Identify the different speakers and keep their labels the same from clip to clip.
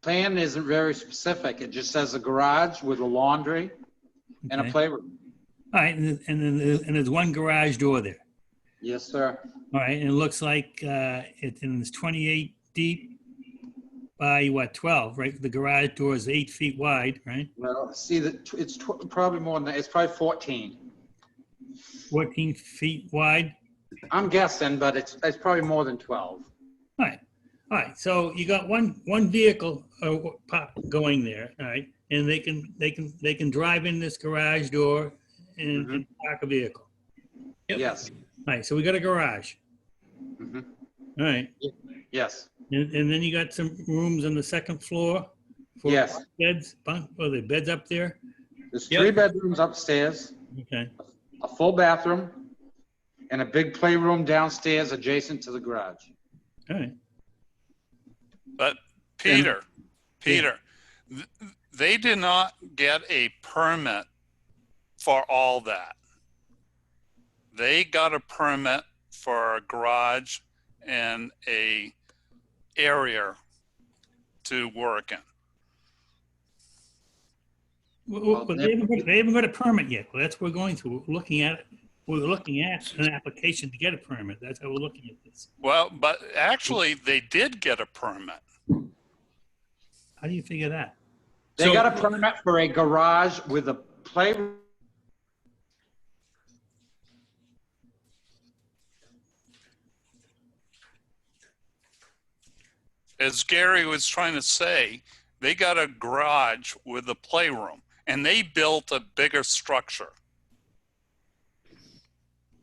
Speaker 1: plan isn't very specific. It just says a garage with a laundry and a
Speaker 2: Okay.
Speaker 1: playroom.
Speaker 2: All right, and, and then there's, and there's one garage door there.
Speaker 1: Yes, sir.
Speaker 2: All right, and it looks like uh, it, and it's 28 deep by what, 12, right? The garage door is eight feet wide, right?
Speaker 1: Well, see, that tw- it's tw- probably more than that. It's probably 14.
Speaker 2: 14 feet wide.
Speaker 1: I'm guessing, but it's, it's probably more than 12.
Speaker 2: All right, all right. So you got one one vehicle uh, pop going there, all right, and they can they can they can drive in this garage door and, and park a vehicle. Yep.
Speaker 1: Yes,
Speaker 2: All right, so we got a garage.
Speaker 1: Mhm.
Speaker 2: All right,
Speaker 1: yes,
Speaker 2: and, and then you got some rooms on the second floor. for
Speaker 1: Yes.
Speaker 2: Beds, bunk, or the beds up there.
Speaker 1: there's
Speaker 3: Yep.
Speaker 1: three bedrooms upstairs,
Speaker 2: Okay,
Speaker 1: a full bathroom, and a big playroom downstairs adjacent to the garage.
Speaker 2: all right.
Speaker 4: But Peter, Peter, th- they did not get a permit for all that. They got a permit for a garage and a area to work in.
Speaker 2: Well, well, But they haven't, got- they haven't got a permit yet. Well, that's what we're going through. We're looking at, it. we're looking at an application to get a permit. That's how we're looking at this.
Speaker 4: Well, but actually, they did get a permit.
Speaker 2: How do you figure that?
Speaker 1: They
Speaker 3: So-
Speaker 1: got a permit for a garage with a playroom.
Speaker 4: As Gary was trying to say, they got a garage with a playroom and they built a bigger structure.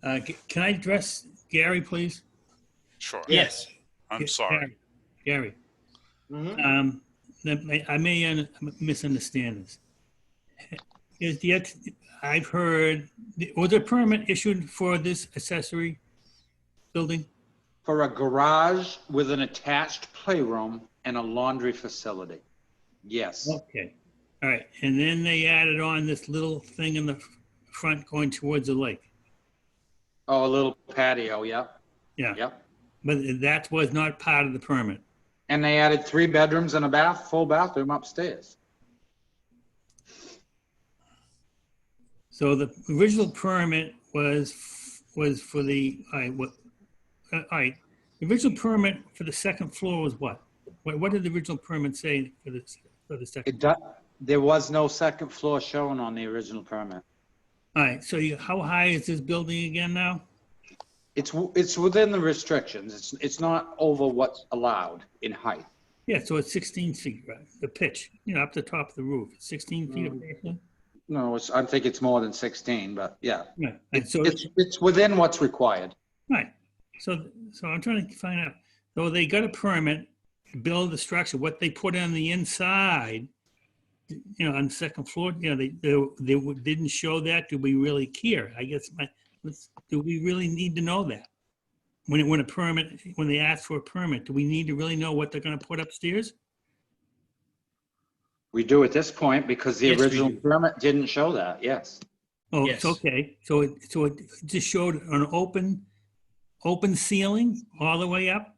Speaker 2: Uh, c- Can I address Gary, please?
Speaker 4: Sure.
Speaker 3: Yes.
Speaker 4: I'm
Speaker 2: Ga-
Speaker 4: sorry.
Speaker 2: Gary, Gary, um, that may- I may un- misunderstand this. Is the, ex- I've heard, was a permit issued for this accessory building?
Speaker 1: for a garage with an attached playroom and a laundry facility. Yes,
Speaker 2: Okay, all right, and then they added on this little thing in the f- front going towards the lake.
Speaker 1: oh, a little patio, yep.
Speaker 2: Yeah.
Speaker 1: Yep.
Speaker 2: But that was not part of the permit.
Speaker 1: And they added three bedrooms and a bath, full bathroom upstairs.
Speaker 2: So the original permit was, f- was for the, all right, what, uh, all right. The original permit for the second floor was what? What, what did the original permit say for the, for the second?
Speaker 1: It does, there was no second floor shown on the original permit.
Speaker 2: All right, so you, how high is this building again now?
Speaker 1: It's, w- it's within the restrictions. It's, it's not over what's allowed in height.
Speaker 2: Yeah, so it's 16 feet, right? The pitch, you know, up the top of the roof, 16 feet. of pitch,
Speaker 1: No, it's, I think it's more than 16, but yeah.
Speaker 2: Yeah. And
Speaker 1: It's,
Speaker 2: so,
Speaker 1: it's, it's within what's required.
Speaker 2: right, so, so I'm trying to find out, so they got a permit to build the structure, what they put on the inside, you know, on the second floor, you know, they, they, they didn't show that, do we really care? I guess my, let's, do we really need to know that? When, when a permit, when they ask for a permit, do we need to really know what they're gonna put upstairs?
Speaker 1: We do at this point because the
Speaker 3: Yes, we
Speaker 1: original
Speaker 3: do.
Speaker 1: permit didn't show that, yes.
Speaker 2: Oh, it's
Speaker 3: Yes.
Speaker 2: okay. So it, so it just showed an open, open ceiling all the way up?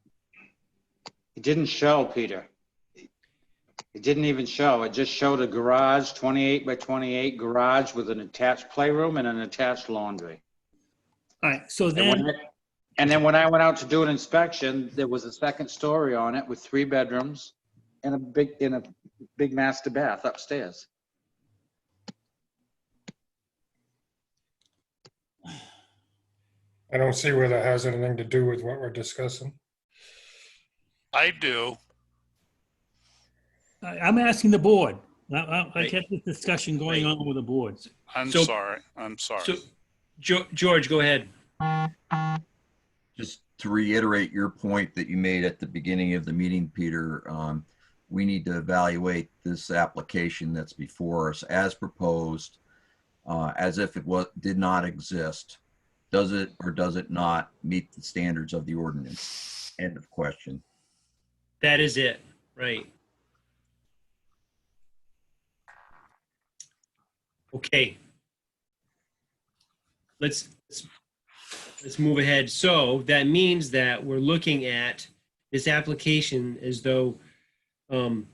Speaker 1: It didn't show, Peter. It didn't even show. It just showed a garage, 28 by 28 garage with an attached playroom and an attached laundry.
Speaker 2: All right, so
Speaker 1: And when
Speaker 2: then,
Speaker 1: I- and then when I went out to do an inspection, there was a second story on it with three bedrooms and a big, and a big master bath upstairs.
Speaker 5: I don't see where that has anything to do with what we're discussing.
Speaker 4: I do.
Speaker 2: I- I'm asking the board. I- I, I
Speaker 3: Right.
Speaker 2: kept this discussion going
Speaker 3: Right.
Speaker 2: on with the boards.
Speaker 4: I'm
Speaker 3: So-
Speaker 4: sorry. I'm sorry.
Speaker 3: So, Geo- George, go ahead.
Speaker 6: just to reiterate your point that you made at the beginning of the meeting, Peter, um, we need to evaluate this application that's before us as proposed, uh, as if it was, did not exist. Does it or does it not meet the standards of the ordinance? End of question.
Speaker 3: That is it, right? Okay. Let's, let's- let's move ahead. So that means that we're looking at this application as though um,